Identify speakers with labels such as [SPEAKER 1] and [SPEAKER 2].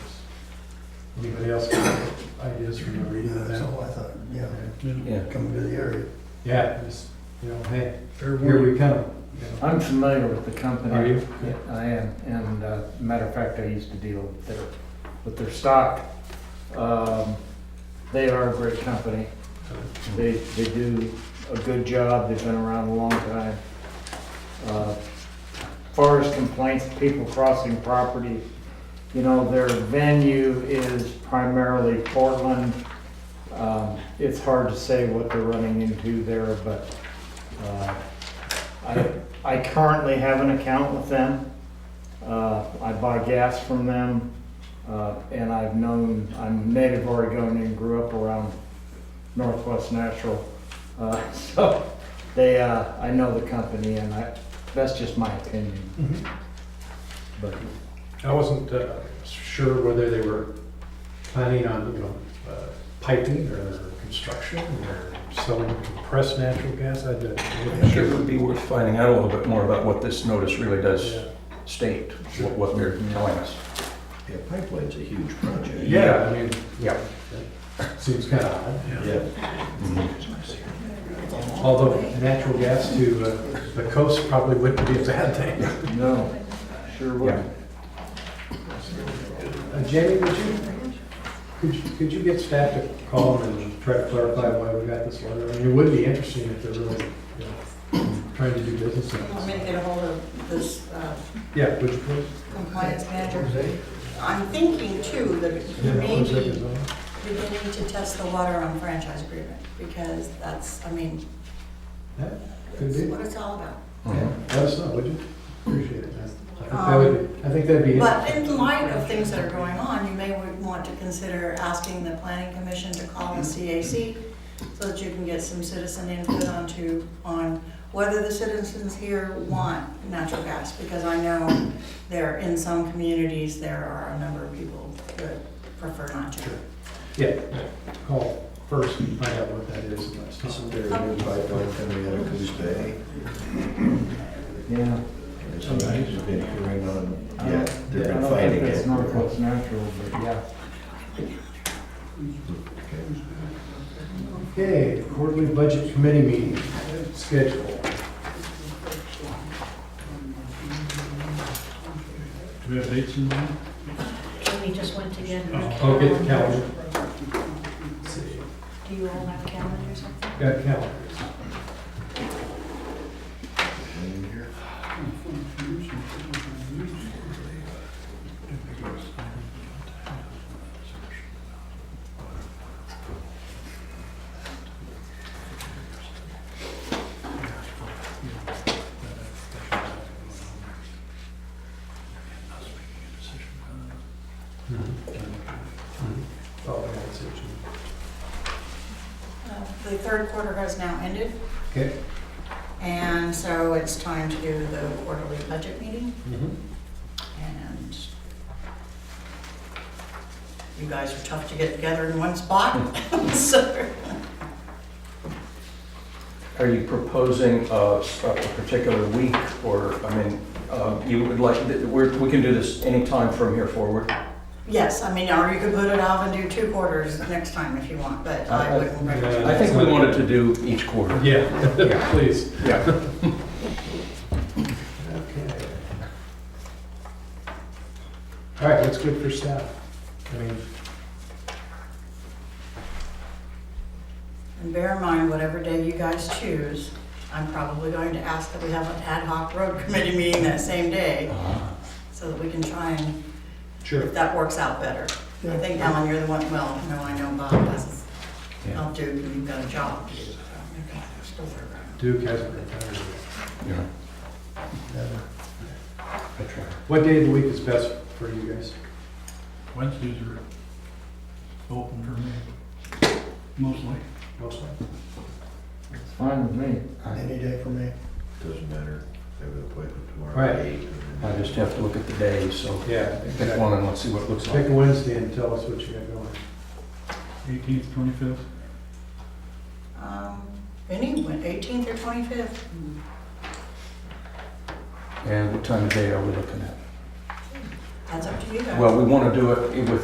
[SPEAKER 1] Anybody else got ideas from the reading of
[SPEAKER 2] That's
[SPEAKER 1] that?
[SPEAKER 2] all I thought, yeah,
[SPEAKER 3] Yeah,
[SPEAKER 2] coming to the area.
[SPEAKER 1] Yeah, just, you know, hey, here we come. you know.
[SPEAKER 3] I'm familiar with the company.
[SPEAKER 1] Are you?
[SPEAKER 3] Yeah, I am, and uh, matter of fact, I used to deal with their, with their stock. Um, They are a great company. They, they do a good job, they've been around a long time. Uh, Far as complaints, people crossing property, you know, their venue is primarily Portland. Um, It's hard to say what they're running into there, but uh, I, I currently have an account with them. Uh, I buy gas from them, uh, and I've known, I'm native Oregonian, grew up around Northwest Natural. Uh, so they, uh, I know the company, and I, that's just my opinion. But
[SPEAKER 1] I wasn't uh, sure whether they were planning on, you know, uh, piping or construction or selling compressed natural gas. I didn't. I wasn't
[SPEAKER 4] It would be worth finding out a little bit more about what this notice really does
[SPEAKER 1] Yeah.
[SPEAKER 4] state, what what they're telling us.
[SPEAKER 5] Yeah, pipeline's a huge project.
[SPEAKER 1] Yeah, I mean,
[SPEAKER 4] Yeah.
[SPEAKER 1] seems kind of odd.
[SPEAKER 5] Yeah.
[SPEAKER 4] Mm-hmm.
[SPEAKER 1] Although natural gas to uh, the coast probably wouldn't be a bad thing.
[SPEAKER 3] no, sure would.
[SPEAKER 4] Yeah.
[SPEAKER 1] Uh, Jamie, would you, could you, could you get staff to call them and try to clarify why we got this letter? I mean, it would be interesting if they're really, you know, trying to do business in
[SPEAKER 6] I'm
[SPEAKER 1] this.
[SPEAKER 6] going to get ahold of this uh,
[SPEAKER 1] Yeah, would you please?
[SPEAKER 6] compliance manager. I'm thinking too
[SPEAKER 1] Yeah,
[SPEAKER 6] that
[SPEAKER 1] one second,
[SPEAKER 6] maybe
[SPEAKER 1] Zoe.
[SPEAKER 6] beginning to test the water on franchise agreement because that's, I mean,
[SPEAKER 1] That could
[SPEAKER 6] that's
[SPEAKER 1] be.
[SPEAKER 6] what it's all about.
[SPEAKER 4] Mhm.
[SPEAKER 1] Let us know, would you? Appreciate it. I think that would, be- I think that'd be, it.
[SPEAKER 6] Um, But in light of things that are going on, you may would want to consider asking the planning commission to call the CAC so that you can get some citizen input onto, on whether the citizens here want natural gas. Because I know there, in some communities, there are a number of people that prefer not to.
[SPEAKER 1] yeah, call first and find out what that is and let's talk.
[SPEAKER 5] Isn't there a new pipeline coming out of Coos Bay?
[SPEAKER 3] Yeah.
[SPEAKER 5] There's some news has been hearing on,
[SPEAKER 3] I don't-
[SPEAKER 5] yeah, they've
[SPEAKER 3] I
[SPEAKER 5] been
[SPEAKER 3] don't
[SPEAKER 5] fighting
[SPEAKER 3] think It's
[SPEAKER 5] it.
[SPEAKER 3] Northwest Natural, but yeah.
[SPEAKER 5] Okay.
[SPEAKER 1] Okay, quarterly budget committee meeting schedule.
[SPEAKER 7] Do we have dates in mind?
[SPEAKER 8] We just went to get her
[SPEAKER 1] I'll get the calendar.
[SPEAKER 8] Do you all have calendars?
[SPEAKER 1] Got calendars.
[SPEAKER 5] Anyone here?
[SPEAKER 1] Oh, I got section.
[SPEAKER 6] Uh, The third quarter has now ended,
[SPEAKER 1] Okay.
[SPEAKER 6] and so it's time to do the quarterly budget meeting.
[SPEAKER 1] Mm-hmm.
[SPEAKER 6] And you guys are tough to get together in one spot, so.
[SPEAKER 4] Are you proposing uh, s- a particular week, or, I mean, uh, you would like, th- we're- we can do this anytime from here forward?
[SPEAKER 6] Yes, I mean, or you could put it off and do two quarters next time if you want, but I wouldn't recommend.
[SPEAKER 4] I think we wanted to do each quarter.
[SPEAKER 1] Yeah, please.
[SPEAKER 4] Yeah.
[SPEAKER 1] Okay. All right, what's good for staff? I mean,
[SPEAKER 6] And bear in mind, whatever day you guys choose, I'm probably going to ask that we have an ad hoc road committee meeting that same day, so that we can try and,
[SPEAKER 1] sure.
[SPEAKER 6] if that works out better. I think, Alan, you're the one, well, no, I know Bob has, I'll do, you've got a job to do. so maybe I'll still work around.
[SPEAKER 1] Duke has a retirement.
[SPEAKER 4] Yeah.
[SPEAKER 1] What day of the week is best for you guys?
[SPEAKER 7] Wednesdays are open for me, mostly.
[SPEAKER 1] Mostly.
[SPEAKER 3] It's fine with me.
[SPEAKER 2] Any day for me.
[SPEAKER 5] Doesn't matter. I have an appointment tomorrow.
[SPEAKER 1] Right.
[SPEAKER 5] at eight, and
[SPEAKER 4] I
[SPEAKER 5] then-
[SPEAKER 4] just have to look at the days, so
[SPEAKER 1] Yeah.
[SPEAKER 4] pick one and let's see what it looks
[SPEAKER 1] Pick
[SPEAKER 4] like.
[SPEAKER 1] a Wednesday and tell us what you got going.
[SPEAKER 7] Eighteenth, twenty-fifth,
[SPEAKER 6] Um, Any, when- 18th or 25th?
[SPEAKER 4] And what time of day are we looking at?
[SPEAKER 6] That's up to you guys.
[SPEAKER 4] Well, we want to do it with